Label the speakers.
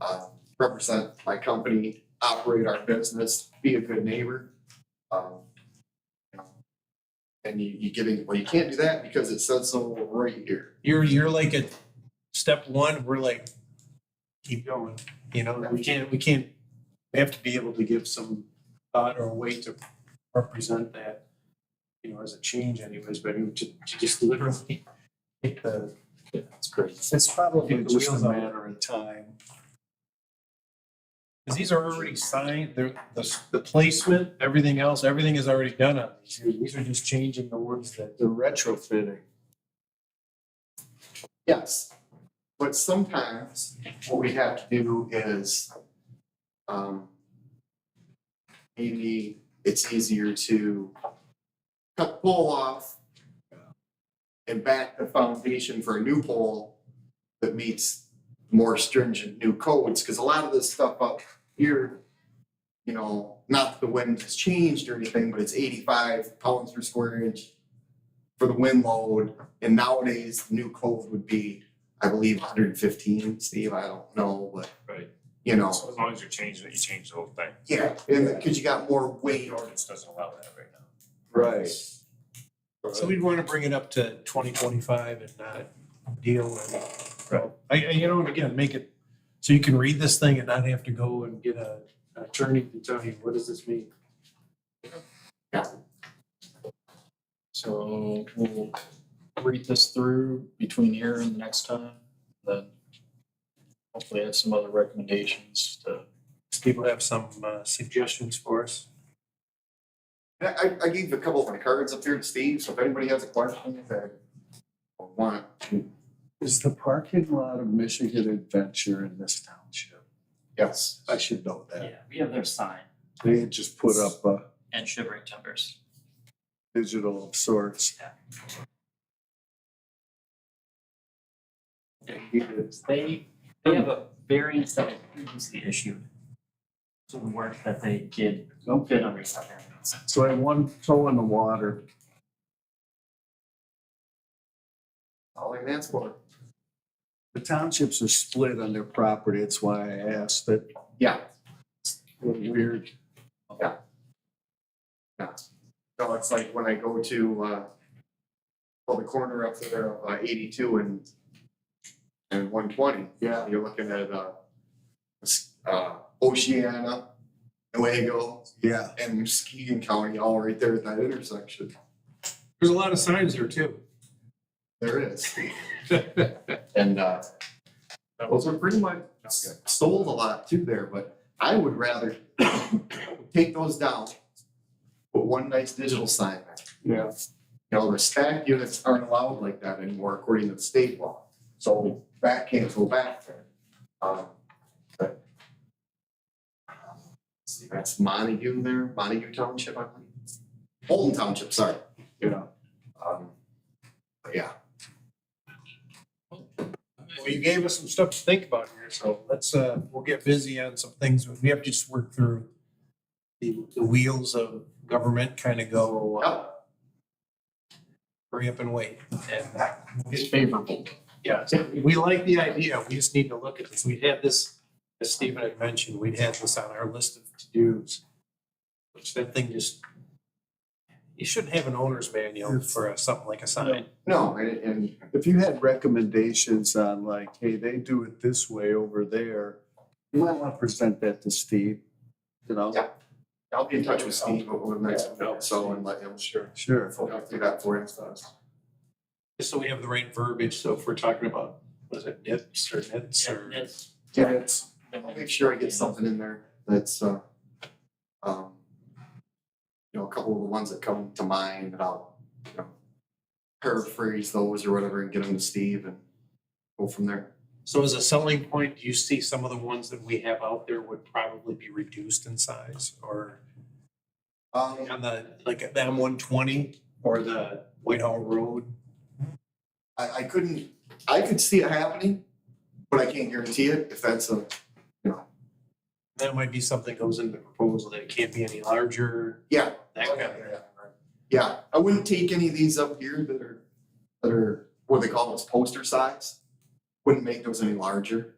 Speaker 1: uh, represent my company, operate our business, be a good neighbor. Um, you know, And you, you giving, well, you can't do that because it says so right here.
Speaker 2: You're, you're like at step one, we're like, keep going, you know, we can't, we can't, we have to be able to give some thought or weight to represent that, you know, as a change anyways, but you ju- you just literally hit the,
Speaker 1: That's great.
Speaker 3: It's probably
Speaker 2: hit the
Speaker 3: just
Speaker 2: wheels
Speaker 3: a
Speaker 2: out.
Speaker 3: matter of time.
Speaker 2: Because these are already signed, they're, the, the placement, everything else, everything is already done on these. These are just changing the words that.
Speaker 3: The retrofitting.
Speaker 1: Yes, but sometimes what we have to do is, um, maybe it's easier to cut pole off and back the foundation for a new pole that meets more stringent new codes, because a lot of this stuff up here, you know, not that the wind has changed or anything, but it's eighty-five pounds per square inch for the wind load. And nowadays, the new code would be, I believe, hundred and fifteen, Steve, I don't know, but.
Speaker 4: Right.
Speaker 1: You know,
Speaker 4: So as long as you're changing it, you change the whole thing.
Speaker 1: yeah, and, cause you got more weight.
Speaker 4: The ordinance doesn't allow that right now.
Speaker 3: Right.
Speaker 2: So we'd want to bring it up to twenty twenty-five and not deal with. I, I, you know, and again, make it, so you can read this thing and not have to go and get a an attorney to tell you, what does this mean?
Speaker 5: So we'll read this through between here and the next time, then hopefully have some other recommendations to.
Speaker 2: Steve will have some uh, suggestions for us.
Speaker 1: And I, I gave a couple of my cards up here to Steve, so if anybody has a question, they want,
Speaker 3: Is the parking lot of Michigan Adventure in this township?
Speaker 1: yes.
Speaker 3: I should know that.
Speaker 6: Yeah, we have their sign
Speaker 3: They had just put up a
Speaker 6: and shivering timbers.
Speaker 3: digital of sorts.
Speaker 6: They, they have a variance that was previously issued to the work that they did fit under that variance.
Speaker 3: So I had one toe in the water.
Speaker 1: All I can ask for,
Speaker 3: The townships are split on their property. It's why I asked that.
Speaker 1: yeah,
Speaker 3: Weird.
Speaker 1: so it's like when I go to, uh, well, the corner up there, uh, eighty-two and, and one twenty.
Speaker 3: Yeah.
Speaker 1: You're looking at, uh, s- uh, Oceana, Nuevo,
Speaker 3: Yeah.
Speaker 1: and Muskegon County all right there at that intersection.
Speaker 2: There's a lot of signs there too.
Speaker 1: There is. And uh, those are pretty much sold a lot too there, but I would rather take those down. Put one nice digital sign there.
Speaker 3: Yeah.
Speaker 1: You know, the stack units aren't allowed like that anymore according to the state law. So that can't go back there. Um, but- See, that's Montague there, Montague Township, I believe. Holton Township, sorry.
Speaker 3: Yeah.
Speaker 1: Um, but yeah,
Speaker 2: Well, you gave us some stuff to think about here, so let's, uh, we'll get busy on some things. We have to just work through the, the wheels of government kind of go, uh,
Speaker 1: Yep.
Speaker 2: hurry up and wait.
Speaker 5: It's favorable.
Speaker 2: Yeah, so we like the idea, we just need to look at this, we had this, as Stephen had mentioned, we had this on our list of to-dos. Which that thing just, you shouldn't have an owner's manual for a- something like a sign.
Speaker 1: no, and, and
Speaker 3: If you had recommendations on like, hey, they do it this way over there, you might want to present that to Steve, you know?
Speaker 1: Yeah. I'll be in touch with Steve over the next, week or so and let him. Sure.
Speaker 3: Sure.
Speaker 1: I'll do that for him.
Speaker 2: Just so we have the right verbiage, so if we're talking about, what is it, nips or nits
Speaker 6: Yeah,
Speaker 2: or?
Speaker 6: that's-
Speaker 1: Yeah, it's, I'll make sure I get something in there that's, uh, um, you know, a couple of the ones that come to mind and I'll, you know, paraphrase those or whatever and get them to Steve and go from there.
Speaker 2: So as a selling point, do you see some of the ones that we have out there would probably be reduced in size or
Speaker 1: Um,
Speaker 2: on the, like the M one twenty or the Whitehall Road?
Speaker 1: I, I couldn't, I could see it happening, but I can't guarantee it if that's a,
Speaker 2: That might be something goes into the proposal that it can't be any larger,
Speaker 1: yeah,
Speaker 2: that kind of.
Speaker 1: Yeah, I wouldn't take any of these up here that are, that are, what do they call those, poster size. Wouldn't make those any larger.